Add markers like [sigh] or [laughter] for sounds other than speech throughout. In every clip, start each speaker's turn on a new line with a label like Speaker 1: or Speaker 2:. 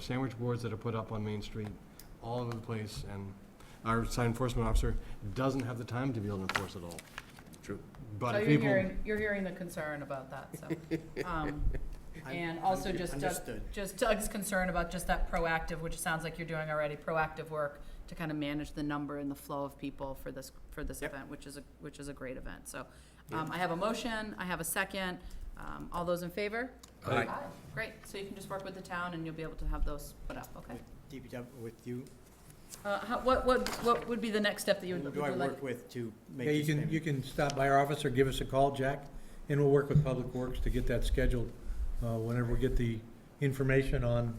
Speaker 1: sandwich boards that are put up on Main Street, all over the place, and our sign enforcement officer doesn't have the time to be able to enforce it all.
Speaker 2: True.
Speaker 1: But
Speaker 3: So
Speaker 1: if
Speaker 3: you're
Speaker 1: people,
Speaker 3: hearing, you're hearing the concern about that,
Speaker 1: [laughs]
Speaker 3: so. um, And also just Doug,
Speaker 2: Understood.
Speaker 3: just Doug's concern about just that proactive, which sounds like you're doing already, proactive work to kind of manage the number and the flow of people for this, for this
Speaker 2: Yep.
Speaker 3: event, which is a, which is a great event, so. Um, I have a motion, I have a second, um, all those in favor?
Speaker 2: Aye.
Speaker 3: Great, so you can just work with the town and you'll be able to have those put up, okay?
Speaker 4: DPW with you,
Speaker 3: Uh, how, what, what, what would be the next step that you would,
Speaker 4: who
Speaker 3: would
Speaker 4: do
Speaker 3: you
Speaker 4: I
Speaker 3: like?
Speaker 4: work with to make
Speaker 5: Yeah, you
Speaker 4: this
Speaker 5: can, you
Speaker 4: payment?
Speaker 5: can stop by our office or give us a call, Jack, and we'll work with Public Works to get that scheduled, uh, whenever we get the information on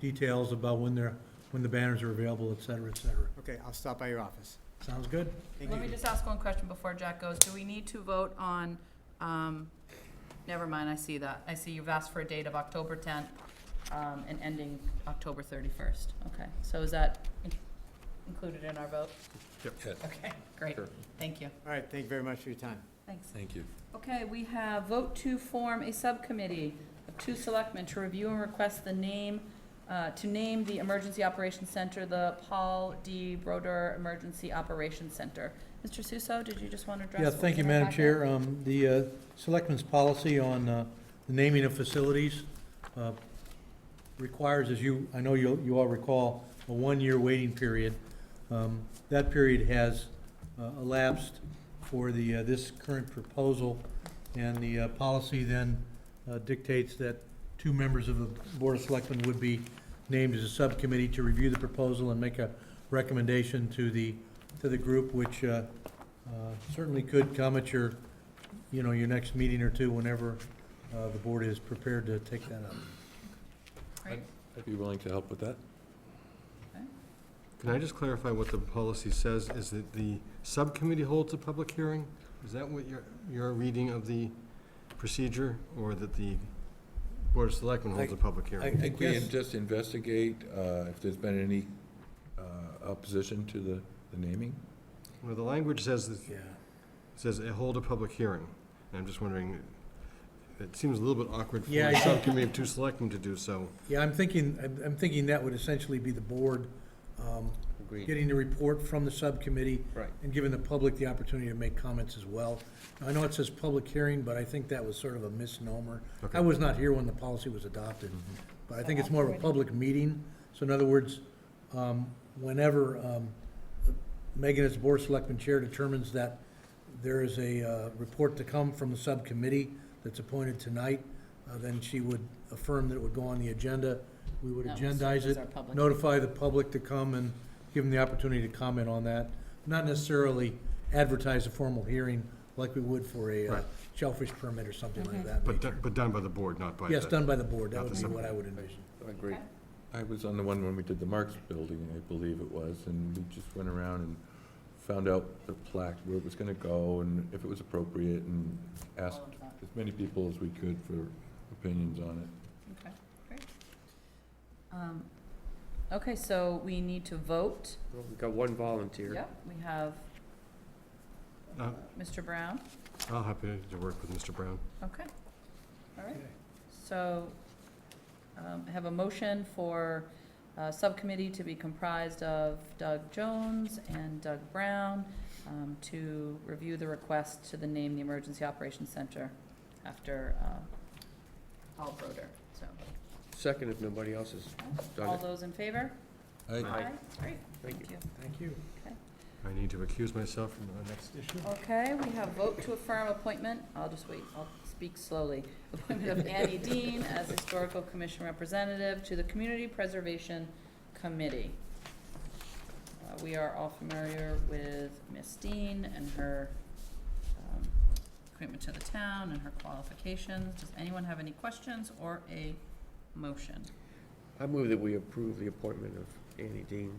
Speaker 5: details about when they're, when the banners are available, et cetera, et cetera.
Speaker 4: Okay, I'll stop by your office.
Speaker 5: Sounds good?
Speaker 4: Thank
Speaker 3: Let me
Speaker 4: you.
Speaker 3: just ask one question before Jack goes. Do we need to vote on, um, never mind, I see that. I see you've asked for a date of October tenth, um, and ending October thirty-first. Okay, so is that in- included in our vote?
Speaker 2: Yes.
Speaker 3: Okay, great.
Speaker 2: Sure.
Speaker 3: Thank you.
Speaker 4: All right, thank you very much for your time.
Speaker 3: Thanks.
Speaker 2: Thank you.
Speaker 3: Okay, we have vote to form a subcommittee of two selectmen to review and request the name, uh, to name the Emergency Operations Center, the Paul D. Broder Emergency Operations Center. Mr. Suso, did you just want to address?
Speaker 5: Yeah,
Speaker 3: what
Speaker 5: thank
Speaker 3: was
Speaker 5: you,
Speaker 3: in our
Speaker 5: Madam
Speaker 3: packet?
Speaker 5: Chair. Um, The uh, Selectmen's policy on uh, the naming of facilities uh, requires, as you, I know you you all recall, a one-year waiting period. Um, That period has uh, elapsed for the, uh, this current proposal, and the uh, policy then uh, dictates that two members of the Board of Selectmen would be named as a subcommittee to review the proposal and make a recommendation to the, to the group, which uh, uh, certainly could come at your, you know, your next meeting or two, whenever uh, the board is prepared to take that up.
Speaker 3: Right.
Speaker 2: I'd be willing to help with that.
Speaker 1: can I just clarify what the policy says? Is that the subcommittee holds a public hearing? Is that what your, your reading of the procedure, or that the Board of Selectmen holds a public
Speaker 5: I
Speaker 1: hearing?
Speaker 2: I think we
Speaker 5: guess,
Speaker 2: can just investigate uh, if there's been any uh, opposition to the the naming.
Speaker 1: Well, the language says, that-
Speaker 5: yeah,
Speaker 1: says uh, hold a public hearing, and I'm just wondering, it seems a little bit awkward for
Speaker 5: Yeah,
Speaker 1: a
Speaker 5: I-
Speaker 1: subcommittee of two selectmen to do so.
Speaker 5: yeah, I'm thinking, I'm- I'm thinking that would essentially be the board um, getting the report from the subcommittee.
Speaker 2: Right.
Speaker 5: And giving the public the opportunity to make comments as well. I know it says public hearing, but I think that was sort of a misnomer.
Speaker 1: Okay.
Speaker 5: I was not here when the policy was adopted, but I think it's more of a public meeting. So in other words, um, whenever um, Megan as Board of Selectmen Chair determines that there is a uh, report to come from the subcommittee that's appointed tonight, uh, then she would affirm that it would go on the agenda. We would
Speaker 3: That was-
Speaker 5: agendize
Speaker 3: was
Speaker 5: it,
Speaker 3: our public-
Speaker 5: notify the public to come and give them the opportunity to comment on that. Not necessarily advertise a formal hearing like we would for a uh,
Speaker 1: Right.
Speaker 5: shellfish permit or something like that.
Speaker 1: But,
Speaker 5: nature.
Speaker 1: do- but done by the board, not by the.
Speaker 5: Yes, done by the board. That
Speaker 1: Not
Speaker 5: would
Speaker 1: the
Speaker 5: be what I would envision.
Speaker 2: I agree.
Speaker 3: Okay.
Speaker 2: I was on the one when we did the Marks Building, I believe it was, and we just went around and found out the plaque, where it was gonna go, and if it was appropriate, and asked
Speaker 3: All of that.
Speaker 2: as many people as we could for opinions on it.
Speaker 3: Okay, great. Um, Okay, so we need to vote.
Speaker 6: We've got one volunteer.
Speaker 3: Yep, we have
Speaker 1: Uh,
Speaker 3: Mr. Brown.
Speaker 1: I'll happy to work with Mr. Brown.
Speaker 3: Okay, all right. So um, I have a motion for a subcommittee to be comprised of Doug Jones and Doug Brown um, to review the request to the name the Emergency Operations Center after uh, Paul Broder. So,
Speaker 6: Second, if nobody else has done
Speaker 3: all
Speaker 6: it.
Speaker 3: those in favor?
Speaker 2: I,
Speaker 6: Aye.
Speaker 3: Great,
Speaker 6: Thank
Speaker 3: thank you.
Speaker 5: Thank you.
Speaker 1: I need to accuse myself from the next issue.
Speaker 3: Okay, we have vote to affirm appointment, I'll just wait, I'll speak slowly. [laughs] Appointment of Annie Dean as Historical Commission Representative to the Community Preservation Committee. Uh, We are all familiar with Miss Dean and her um, commitment to the town and her qualifications. Does anyone have any questions or a motion?
Speaker 6: I move that we approve the appointment of Annie Dean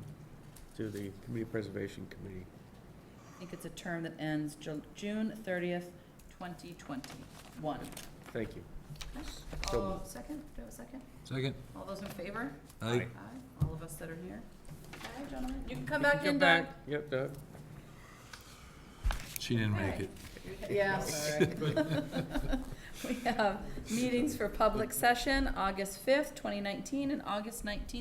Speaker 6: to the Community Preservation Committee.
Speaker 3: I think it's a term that ends Ju- June thirtieth, twenty twenty-one.
Speaker 6: Thank you. So
Speaker 3: Oh, second, do I have a second?
Speaker 2: Second.
Speaker 3: All those in favor?
Speaker 2: I,
Speaker 3: Aye, all of us that are here. Aye, gentlemen. You can come back
Speaker 6: Come
Speaker 3: in, Doug.
Speaker 6: back. Yep, Doug.
Speaker 2: she didn't make it.
Speaker 3: [laughs] Yeah, sorry. We have meetings for public session, August fifth, twenty nineteen, and August nineteenth,